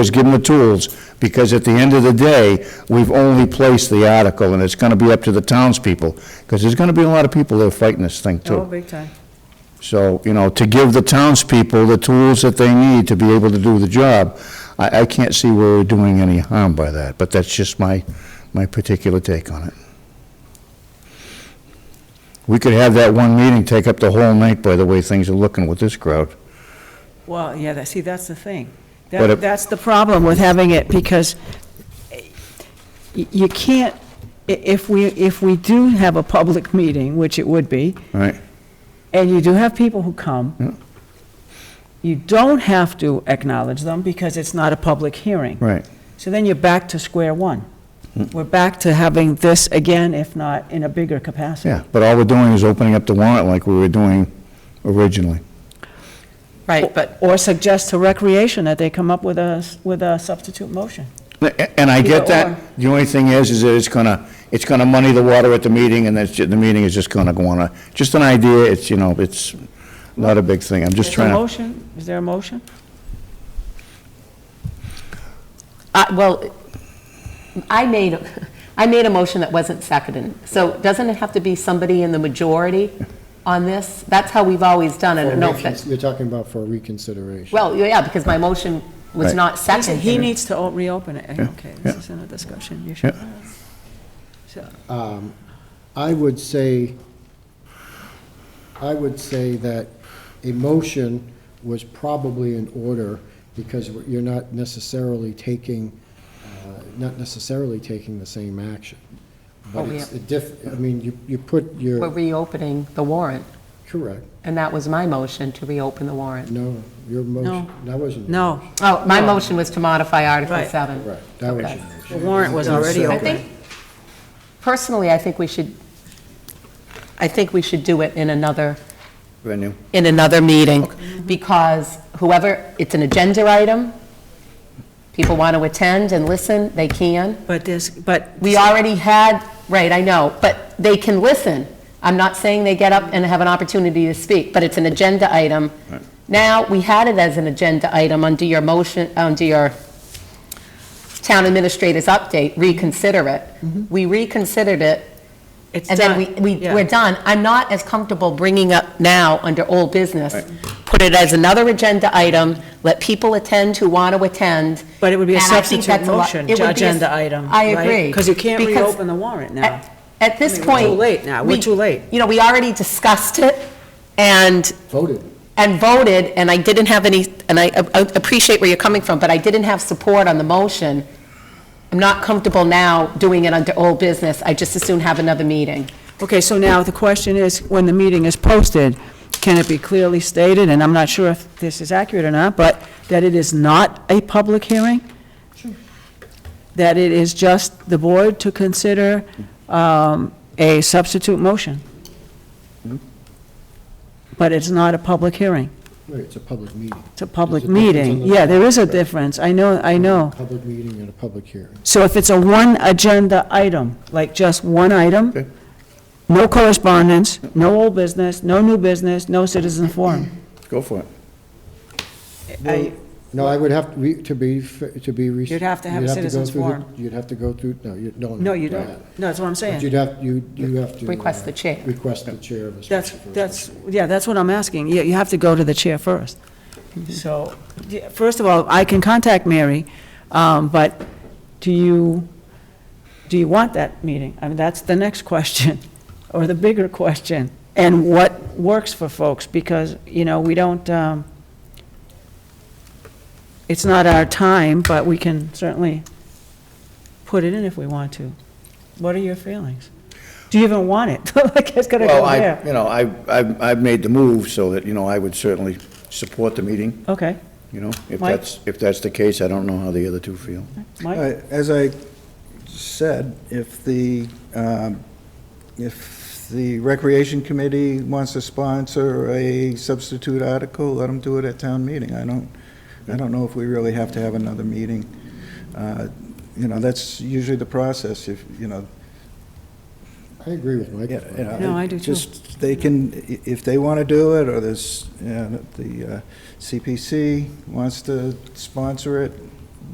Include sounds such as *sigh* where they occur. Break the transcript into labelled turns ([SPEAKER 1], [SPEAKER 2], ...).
[SPEAKER 1] is give them the tools, because at the end of the day, we've only placed the article, and it's going to be up to the townspeople, because there's going to be a lot of people that are fighting this thing,
[SPEAKER 2] Oh,
[SPEAKER 1] too.
[SPEAKER 2] big time.
[SPEAKER 1] So, you know, to give the townspeople the tools that they need to be able to do the job, I, I can't see where we're doing any harm by that, but that's just my, my particular take on it. We could have that one meeting take up the whole night, by the way things are looking with this crowd.
[SPEAKER 2] Well, yeah, that, see, that's the thing.
[SPEAKER 1] But
[SPEAKER 2] That,
[SPEAKER 1] it-
[SPEAKER 2] that's the problem with having it, because y- you can't, i- if we, if we do have a public meeting, which it would be,
[SPEAKER 1] Right,
[SPEAKER 2] and you do have people who come, you don't have to acknowledge them, because it's not a public hearing.
[SPEAKER 1] right. Hmm.
[SPEAKER 2] So then you're back to square one. We're back to having this again, if not in a bigger capacity.
[SPEAKER 1] Yeah, but all we're doing is opening up the warrant like we were doing originally.
[SPEAKER 3] Right, but,
[SPEAKER 2] Or suggest to recreation that they come up with a, s- with a substitute motion.
[SPEAKER 1] And I get
[SPEAKER 2] Either or.
[SPEAKER 1] that. The only thing is, is that it's gonna, it's gonna money the water at the meeting, and that's, ju- the meeting is just gonna go on a, just an idea, it's, you know, it's not a big thing, I'm just
[SPEAKER 2] Is there a
[SPEAKER 1] trying to.
[SPEAKER 2] motion? Is there a motion?
[SPEAKER 3] I- Uh, well, I made, a- I made a motion that wasn't seconded. So doesn't it have to be somebody in the majority on this? That's how we've always done it, no offense.
[SPEAKER 4] You're talking about for reconsideration.
[SPEAKER 3] Well, yeah, because my motion was
[SPEAKER 1] Right.
[SPEAKER 3] not
[SPEAKER 2] Listen, He
[SPEAKER 3] seconded.
[SPEAKER 2] needs to o- reopen it. Okay, this
[SPEAKER 1] yeah.
[SPEAKER 2] is in a discussion. You should. So,
[SPEAKER 4] I would say, I would say that a motion was probably in order because you're not necessarily taking, uh, not necessarily taking the same action. But
[SPEAKER 3] Oh, yeah.
[SPEAKER 4] it's a diff, I mean, you, you put
[SPEAKER 3] We're
[SPEAKER 4] your,
[SPEAKER 3] reopening the warrant,
[SPEAKER 4] correct,
[SPEAKER 3] and that was my motion to reopen the warrant.
[SPEAKER 4] no, your motion, that wasn't. your
[SPEAKER 2] No,
[SPEAKER 4] motion.
[SPEAKER 3] Oh, my motion was to modify Article
[SPEAKER 2] Right.
[SPEAKER 3] 7.
[SPEAKER 4] Right, that was your
[SPEAKER 3] Okay.
[SPEAKER 2] the
[SPEAKER 4] motion.
[SPEAKER 2] warrant was already
[SPEAKER 3] I
[SPEAKER 2] open.
[SPEAKER 3] think, personally, I think we should, I think we should do it in another
[SPEAKER 1] Venue.
[SPEAKER 3] in another meeting, because whoever, it's an agenda item, people want to attend and listen, they can.
[SPEAKER 2] But this, but.
[SPEAKER 3] We already had, right, I know, but they can listen. I'm not saying they get up and have an opportunity to speak, but it's an agenda item. Now, we had it as an agenda item under your motion, under your town administrator's update, reconsider it. We reconsidered it,
[SPEAKER 2] It's
[SPEAKER 3] and then
[SPEAKER 2] done.
[SPEAKER 3] we, we,
[SPEAKER 2] Yeah.
[SPEAKER 3] we're done. I'm not as comfortable bringing up now under old business. Put it as another agenda item, let people attend who want to attend.
[SPEAKER 2] But it would be a
[SPEAKER 3] and I think
[SPEAKER 2] substitute
[SPEAKER 3] that's a lot-
[SPEAKER 2] motion,
[SPEAKER 3] it would be a-
[SPEAKER 2] agenda item.
[SPEAKER 3] I agree.
[SPEAKER 2] Because you can't
[SPEAKER 3] Because
[SPEAKER 2] reopen the warrant now.
[SPEAKER 3] At at this
[SPEAKER 2] I mean, we're
[SPEAKER 3] point.
[SPEAKER 2] too late now. We're
[SPEAKER 3] we-
[SPEAKER 2] too late.
[SPEAKER 3] You know, we already discussed it and,
[SPEAKER 4] Voted.
[SPEAKER 3] and voted, and I didn't have any, and I a- a- appreciate where you're coming from, but I didn't have support on the motion. I'm not comfortable now doing it under old business. I just as soon have another meeting.
[SPEAKER 2] Okay, so now the question is, when the meeting is posted, can it be clearly stated, and I'm not sure if this is accurate or not, but that it is not a public hearing? That it is just the board to consider um, a substitute motion?
[SPEAKER 4] Hmm?
[SPEAKER 2] But it's not a public hearing.
[SPEAKER 4] Right, It's a public meeting.
[SPEAKER 2] It's a public
[SPEAKER 4] There's a difference in
[SPEAKER 2] meeting.
[SPEAKER 4] the-
[SPEAKER 2] Yeah, there is a difference. I know, I know.
[SPEAKER 4] Public meeting and a public hearing.
[SPEAKER 2] So if it's a one agenda item, like just one
[SPEAKER 1] Okay.
[SPEAKER 2] item, no correspondence, no old business, no new business, no citizen forum.
[SPEAKER 1] Go for it.
[SPEAKER 2] I-
[SPEAKER 4] No, I would have, to be- to be, f- to be. res-
[SPEAKER 2] You'd have to have a
[SPEAKER 4] you'd go
[SPEAKER 2] citizens
[SPEAKER 4] through the-
[SPEAKER 2] forum.
[SPEAKER 4] You'd have to go through, no, you don't.
[SPEAKER 2] No, you
[SPEAKER 4] do
[SPEAKER 2] don't.
[SPEAKER 4] that.
[SPEAKER 2] No, that's what I'm
[SPEAKER 4] But
[SPEAKER 2] saying.
[SPEAKER 4] you'd have, you, you have to.
[SPEAKER 3] Request
[SPEAKER 4] uh,
[SPEAKER 3] the chair.
[SPEAKER 4] Request the chair of a
[SPEAKER 2] That's,
[SPEAKER 4] special purpose.
[SPEAKER 2] that's, yeah, that's what I'm asking. You, you have to go to the chair first. So, yeah, first of all, I can contact Mary, um, but do you, do you want that meeting? I mean, that's the next question, *laughs* or the bigger question. And what works for folks, because, you know, we don't, um, it's not our time, but we can certainly put it in if we want to. What are your feelings? Do you even want it? *laughs* Like, it's gonna
[SPEAKER 1] Well,
[SPEAKER 2] go
[SPEAKER 1] I,
[SPEAKER 2] there.
[SPEAKER 1] you know, I, I've, I've made the move so that, you know, I would certainly support the meeting,
[SPEAKER 2] Okay,
[SPEAKER 1] you know? If
[SPEAKER 2] Mike?
[SPEAKER 1] that's, if that's the case, I don't know how the other two feel.
[SPEAKER 2] Mike?
[SPEAKER 5] I- As I said, if the, um, if the Recreation Committee wants to sponsor a substitute article, let them do it at town meeting. I don't, I don't know if we really have to have another meeting. Uh, You know, that's usually the process, if, you know,
[SPEAKER 4] I agree with Mike.
[SPEAKER 5] yeah, you know,
[SPEAKER 2] No, I do too.
[SPEAKER 5] Just, they can, i- if they want to do it, or this, you know, the uh, CPC wants to sponsor it,